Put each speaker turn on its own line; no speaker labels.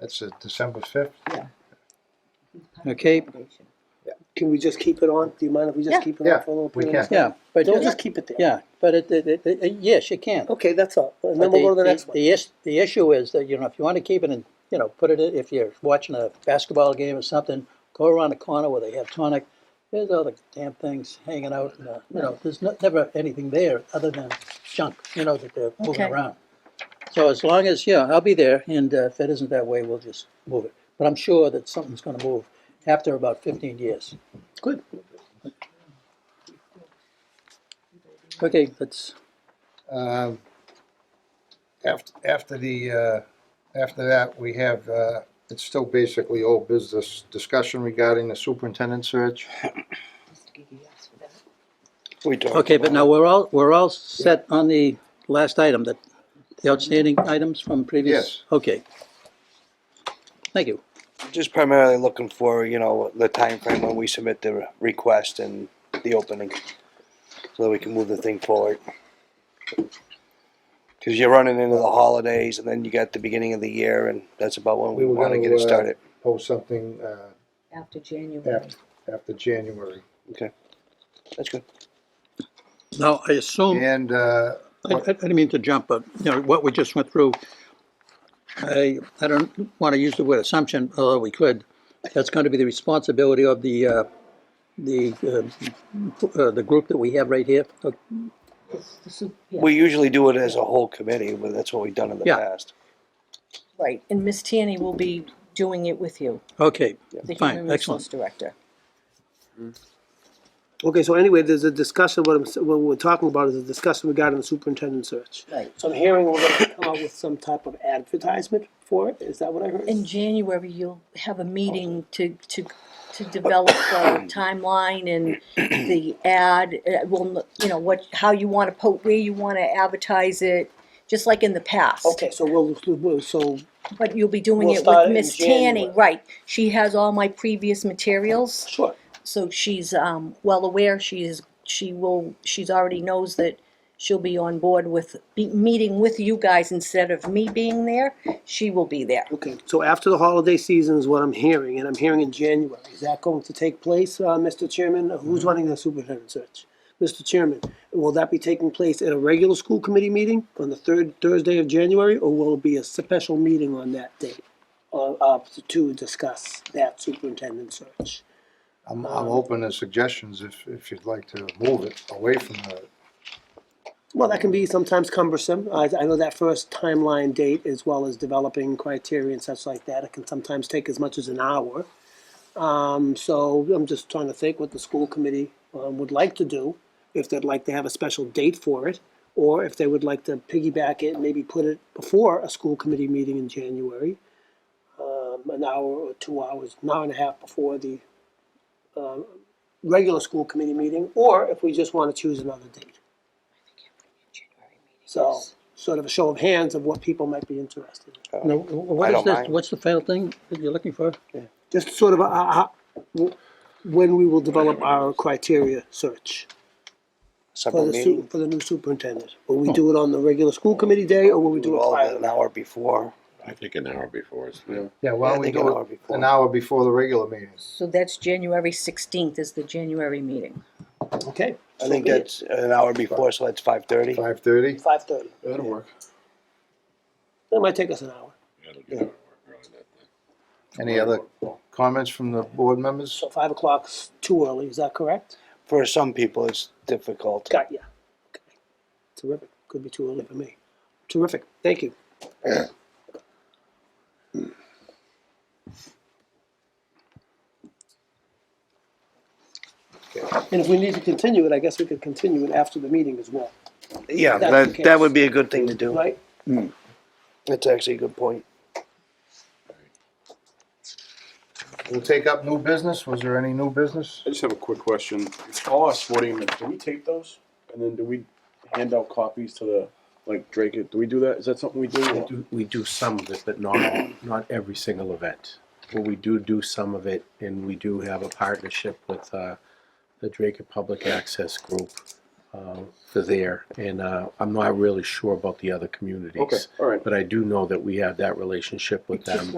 That's uh, December 5th?
Okay.
Can we just keep it on? Do you mind if we
Yeah.
just keep it
Yeah,
on for a little
we
period?
can.
of time?
Yeah, but,
Don't
just-
just keep it there.
yeah, but it, it, it- it- yes, you can.
Okay, that's all. And then we'll go to the next one.
The, is- the issue is that, you know, if you want to keep it and, you know, put it, in- if you're watching a basketball game or something, go around the corner where they have tonic, there's all the damn things hanging out, and, uh, you know, there's no- never anything there other than junk, you know, that they're moving
Okay.
around. So as long as, yeah, I'll be there, and uh, if it isn't that way, we'll just move it. But I'm sure that something's gonna move after about fifteen years.
Good.
Okay, let's,
Um, After, after the, uh, after that, we have, uh, it's still basically old business discussion regarding the superintendent search.
We talked
okay, but
about
now we're all, we're all set on the last item, that, the outstanding items from previous?
Yes.
Okay. Thank you.
it. Just primarily looking for, you know, the time frame when we submit the request and the opening, so that we can move the thing forward. Because you're running into the holidays, and then you got the beginning of the year, and that's about when we
We were
want to
gonna,
get it
uh,
started.
Post something, uh,
After January.
after, after January.
That's good.
Now, I assume, I,
And, uh,
I I didn't mean to jump, but, you know, what we just went through, I, I don't want to use the word assumption, although we could, that's going to be the responsibility of the, uh, the, uh, uh, the group that we have right here. Okay,
It's the su- yeah,
We usually do it as a whole committee, but that's what we've done in the
Yeah.
past.
Right, and Miss Tierney will be doing it with you,
Okay,
the
Fine,
Human
excellent.
Resource Director.
Okay, so anyway, there's a discussion, what I'm, s- what we're talking about is a discussion regarding the superintendent search.
Right.
So I'm hearing we're gonna come out with some type of advertisement for it, is that what I heard?
In January, you'll have a meeting to, to, to develop a timeline and the ad, uh, well, you know, what, how you wanna po, where you wanna advertise it, just like in the past.
Okay, so we'll, we'll- so,
But you'll be doing
We'll
it
start
with
in
Miss Tanny,
January.
right, she has all my previous materials.
sure,
So she's um, well aware. She is. She will. She's already knows that she'll be on board with be, meeting with you guys instead of me being there. She will be there.
okay, so after the holiday season is what I'm hearing, and I'm hearing in January, is that going to take place, uh, Mr. Chairman? Who's running the superintendent search? Mr. Chairman, will that be taking place at a regular school committee meeting on the third Thursday of January, or will it be a special meeting on that date? Uh, uh, to discuss that superintendent search?
I'm, I'm open to suggestions if, if you'd like to move it away from the,
Well, that can be sometimes cumbersome. I, I know that first timeline date, as well as developing criteria and such like that, it can sometimes take as much as an hour. Um, so I'm just trying to think what the school committee um, would like to do, if they'd like to have a special date for it, or if they would like to piggyback it, maybe put it before a school committee meeting in January, um, an hour or two hours, an hour and a half before the um, regular school committee meeting, or if we just want to choose another date. So, sort of a show of hands of what people might be interested in.
now, wh- what
I
is
don't
this,
mind.
what's the final thing that you're looking for?
Just sort of a, a- a- when we will develop our criteria search for
Separate
the, su-
meeting,
for the new superintendent. Will we do it on the regular school committee day or will we
we do
do it
all of
prior?
it
to
an
that?
hour before.
I think an hour before is fine.
yeah, why
Yeah, I
don't we
think an
do
hour
it
before.
an hour before the regular meeting?
So that's January sixteenth is the January meeting.
Okay,
I think that's an hour before, so that's five thirty.
Five thirty?
five thirty.
That'll work.
It might take us an hour.
That'll get it work early that day.
Any other comments from the board members?
So five o'clock's too early, is that correct?
For some people, it's difficult.
Got ya. Okay. Terrific. Could be too early for me. Terrific. Thank you. And if we need to continue it, I guess we could continue it after the meeting as well,
Yeah,
That's
that,
the
that
case.
would be a good thing to do.
right?
That's actually a good point.
We'll take up new business. Was there any new business?
I just have a quick question. All our sporting events, do we tape those? And then do we hand out copies to the, like Drake, do we do that? Is that something we
We
do?
do, we do some of it, but not all, not every single event. But we do do some of it, and we do have a partnership with uh, the Drake Public Access Group uh, for there. And uh, I'm not really sure about the other communities.
Okay, all right.
But I do know that we have that relationship with them.